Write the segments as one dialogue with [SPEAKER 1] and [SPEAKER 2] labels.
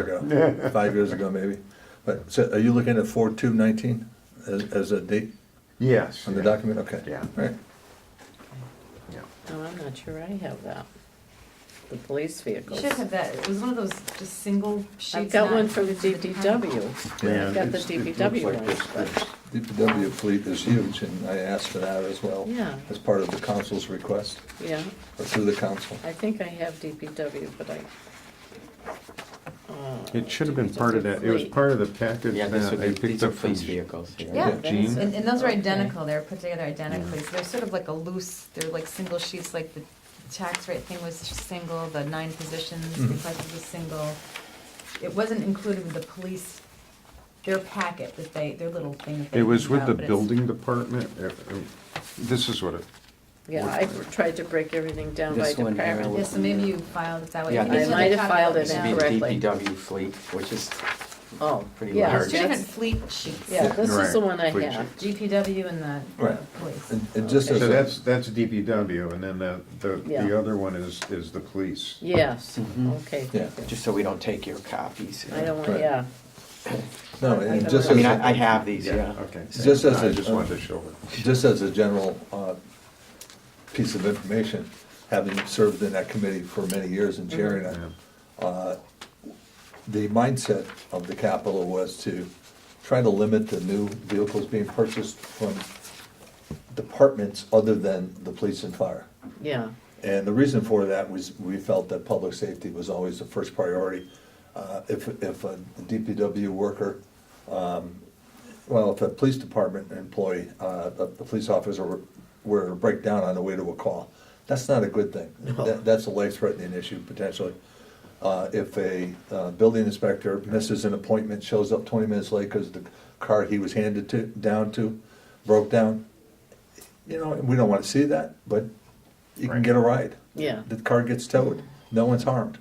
[SPEAKER 1] ago, five years ago maybe. But, so are you looking at four two nineteen as, as a date
[SPEAKER 2] Yes.
[SPEAKER 1] on the
[SPEAKER 2] yeah,
[SPEAKER 1] document? Okay.
[SPEAKER 2] Yeah.
[SPEAKER 1] All right.
[SPEAKER 2] yeah.
[SPEAKER 3] No, Oh, I'm not sure I have that. The police
[SPEAKER 4] You
[SPEAKER 3] vehicles.
[SPEAKER 4] should have that, it was one of those just single sheets.
[SPEAKER 3] I've got
[SPEAKER 4] not-
[SPEAKER 3] one from
[SPEAKER 4] it's at the top.
[SPEAKER 3] DPW.
[SPEAKER 1] Yeah,
[SPEAKER 3] I've got the
[SPEAKER 2] it's- it looks
[SPEAKER 3] DPW
[SPEAKER 2] like
[SPEAKER 3] ones,
[SPEAKER 2] this,
[SPEAKER 3] but,
[SPEAKER 2] this.
[SPEAKER 1] DPW fleet is huge and I asked for that as well.
[SPEAKER 3] Yeah.
[SPEAKER 1] As part of the council's request,
[SPEAKER 3] yeah,
[SPEAKER 1] or through the council.
[SPEAKER 3] I think I have DPW, but I. uh,
[SPEAKER 2] It should have been part of that, it was
[SPEAKER 3] fleet.
[SPEAKER 2] part of the package
[SPEAKER 5] Yeah, this
[SPEAKER 2] that
[SPEAKER 5] would
[SPEAKER 2] I
[SPEAKER 5] be, these
[SPEAKER 2] picked
[SPEAKER 5] are
[SPEAKER 2] up from.
[SPEAKER 5] police vehicles.
[SPEAKER 4] Yeah,
[SPEAKER 2] Jean?
[SPEAKER 4] and, and those are
[SPEAKER 3] Okay.
[SPEAKER 4] identical, they're put together identically, so they're sort of like a loose, they're like single sheets, like the tax rate thing was just single, the nine positions, the
[SPEAKER 1] Mhm.
[SPEAKER 4] budget was single. It wasn't included with the police, their packet that they, their little thing that they.
[SPEAKER 2] It was
[SPEAKER 4] hand
[SPEAKER 2] with
[SPEAKER 4] out,
[SPEAKER 2] the
[SPEAKER 4] but it's-
[SPEAKER 2] building department, uh, uh, this is what it,
[SPEAKER 3] Yeah, I tried to break everything down by
[SPEAKER 5] This one here
[SPEAKER 4] Yeah,
[SPEAKER 3] department.
[SPEAKER 5] was-
[SPEAKER 4] so maybe you filed it that way.
[SPEAKER 5] Yeah,
[SPEAKER 4] think it's
[SPEAKER 5] I
[SPEAKER 4] with
[SPEAKER 3] might
[SPEAKER 4] the
[SPEAKER 3] have
[SPEAKER 4] copy
[SPEAKER 3] filed it
[SPEAKER 5] This
[SPEAKER 4] now.
[SPEAKER 5] would be
[SPEAKER 3] now. Correctly.
[SPEAKER 5] DPW fleet, which is,
[SPEAKER 3] Oh,
[SPEAKER 5] Pretty
[SPEAKER 3] yeah.
[SPEAKER 5] large.
[SPEAKER 4] It's two different
[SPEAKER 3] that's-
[SPEAKER 4] fleet sheets,
[SPEAKER 3] Yeah, this is
[SPEAKER 2] Right,
[SPEAKER 3] the one I
[SPEAKER 2] fleet
[SPEAKER 3] have.
[SPEAKER 4] GPW and the uh,
[SPEAKER 1] Right.
[SPEAKER 4] police.
[SPEAKER 1] And, and just
[SPEAKER 2] so
[SPEAKER 1] as,
[SPEAKER 2] that's,
[SPEAKER 1] a-
[SPEAKER 2] that's DPW, and then the, the,
[SPEAKER 3] Yeah.
[SPEAKER 2] the other one is, is the police.
[SPEAKER 3] Yes,
[SPEAKER 5] Mhm.
[SPEAKER 3] okay.
[SPEAKER 1] Yeah.
[SPEAKER 3] thank you.
[SPEAKER 5] just so we don't take your copies.
[SPEAKER 3] I don't want,
[SPEAKER 1] Right.
[SPEAKER 3] yeah,
[SPEAKER 1] no, and just
[SPEAKER 5] I
[SPEAKER 1] as,
[SPEAKER 5] mean, I, I
[SPEAKER 1] a-
[SPEAKER 5] have these, yeah. uh,
[SPEAKER 2] Okay.
[SPEAKER 1] Just as
[SPEAKER 2] I
[SPEAKER 1] a-
[SPEAKER 2] just wanted to show it.
[SPEAKER 1] just as a general, uh, piece of information, having served in that committee for many years and chairing
[SPEAKER 3] Mm-hmm.
[SPEAKER 1] it,
[SPEAKER 2] Yeah.
[SPEAKER 1] the mindset of the capital was to try to limit the new vehicles being purchased from departments other than the police and fire.
[SPEAKER 3] yeah,
[SPEAKER 1] And the reason for that was, we felt that public safety was always the first priority. Uh, If, if a DPW worker, um, well, if a police department employee, uh, a a police officer were- were to break down on the way to a call, that's not a good thing. That- That's a life-threatening issue potentially. Uh, If a uh, building inspector misses an appointment, shows up 20 minutes late because the car he was handed to, down to, broke down, you know, we don't want to see that, but you can
[SPEAKER 2] Right.
[SPEAKER 1] get a ride.
[SPEAKER 3] yeah,
[SPEAKER 1] The car gets towed, no one's harmed,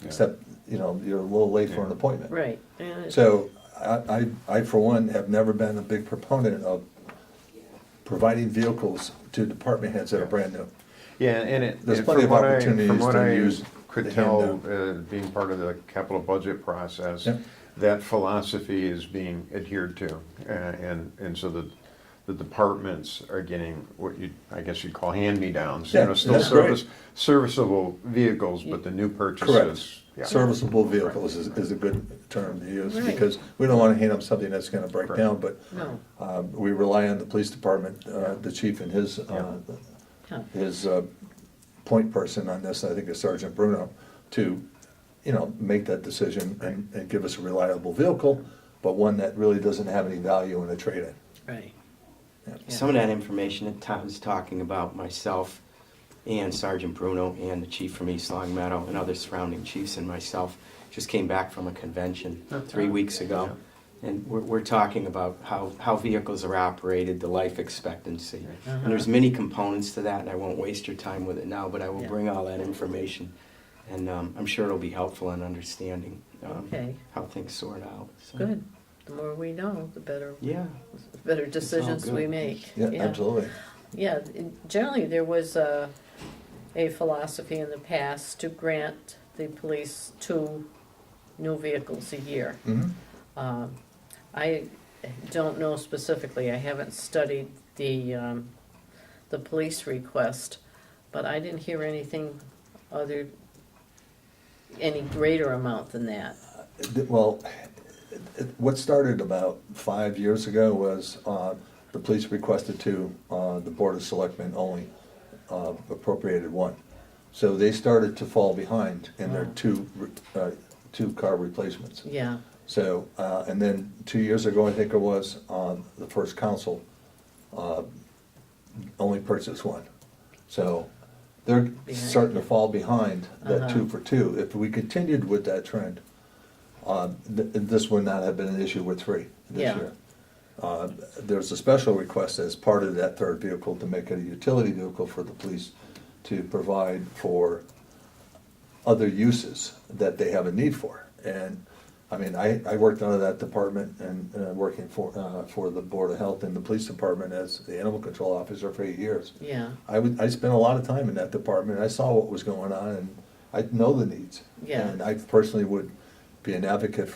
[SPEAKER 2] Yeah.
[SPEAKER 1] except, you know, you're a little late for an appointment.
[SPEAKER 3] right. and it-
[SPEAKER 1] So I, I, I for one have never been a big proponent of providing vehicles to department heads that are brand new.
[SPEAKER 2] Yeah, and it.
[SPEAKER 1] There's
[SPEAKER 2] and
[SPEAKER 1] plenty
[SPEAKER 2] from
[SPEAKER 1] of
[SPEAKER 2] what I-
[SPEAKER 1] opportunities
[SPEAKER 2] from what
[SPEAKER 1] to
[SPEAKER 2] I
[SPEAKER 1] use
[SPEAKER 2] Could
[SPEAKER 1] the
[SPEAKER 2] tell,
[SPEAKER 1] handout.
[SPEAKER 2] uh, being part of the capital budget process,
[SPEAKER 1] Yep.
[SPEAKER 2] that philosophy is being adhered to. uh, And, and so the, the departments are getting what you, I guess you'd call hand-me-downs. You
[SPEAKER 1] Yeah,
[SPEAKER 2] know, still
[SPEAKER 1] that's great.
[SPEAKER 2] service, serviceable vehicles, but the new purchases. yeah.
[SPEAKER 1] Serviceable vehicles is, is a good term to use,
[SPEAKER 3] Right.
[SPEAKER 1] because we don't wanna hand them something that's gonna break
[SPEAKER 2] Correct.
[SPEAKER 1] down, but,
[SPEAKER 3] No,
[SPEAKER 1] um, we rely on the police department, uh, the chief and his, uh,
[SPEAKER 3] no,
[SPEAKER 1] his uh, point person on this, I think is Sergeant Bruno, to, you know, make that decision and, and give us a reliable vehicle, but one that really doesn't have any value in a trade-in.
[SPEAKER 3] right. Yeah.
[SPEAKER 5] Some of that information that Tom's talking about, myself and Sergeant Bruno and the chief from East Long Meadow and other surrounding chiefs and myself, just came back from a convention three weeks ago. And we're, we're talking about how, how vehicles are operated, the life expectancy. And
[SPEAKER 3] Uh-huh.
[SPEAKER 5] there's many components to that, and I won't waste your time with it now, but I will
[SPEAKER 3] Yeah.
[SPEAKER 5] bring all that information. And um, I'm sure it'll be helpful in understanding um,
[SPEAKER 3] Okay.
[SPEAKER 5] how things sort out. so.
[SPEAKER 3] Good. The more we know, the better,
[SPEAKER 5] Yeah.
[SPEAKER 3] the better decisions we
[SPEAKER 5] good.
[SPEAKER 3] make.
[SPEAKER 1] Yeah, absolutely.
[SPEAKER 3] Yeah, in- generally, there was a, a philosophy in the past to grant the police two new vehicles a year.
[SPEAKER 1] Mhm.
[SPEAKER 3] Um, I don't know specifically, I haven't studied the, um, the police request, but I didn't hear anything other, any greater amount than that.
[SPEAKER 1] Th- Well, it- it- what started about five years ago was uh, the police requested to, uh, the Board of Selectmen only uh, appropriated one. So they started to fall behind in their
[SPEAKER 3] Wow.
[SPEAKER 1] two, re- uh, two car replacements.
[SPEAKER 3] Yeah,
[SPEAKER 1] So, uh, and then two years ago, I think it was, um, the first council, uh, only purchased one. So they're starting to fall behind that two for two. If we continued with that trend, um, th- this would not have been an issue with three this
[SPEAKER 3] Yeah.
[SPEAKER 1] year. Uh, There's a special request as part of that third vehicle to make it a utility vehicle for the police to provide for other uses that they have a need for. And, I mean, I, I worked out of that department and, uh, working for, uh, for the Board of Health and the Police Department as the animal control officer for eight years.
[SPEAKER 3] yeah,
[SPEAKER 1] I would, I spent a lot of time in that department, I saw what was going on, and I know the needs.
[SPEAKER 3] Yeah.
[SPEAKER 1] And I personally would be an advocate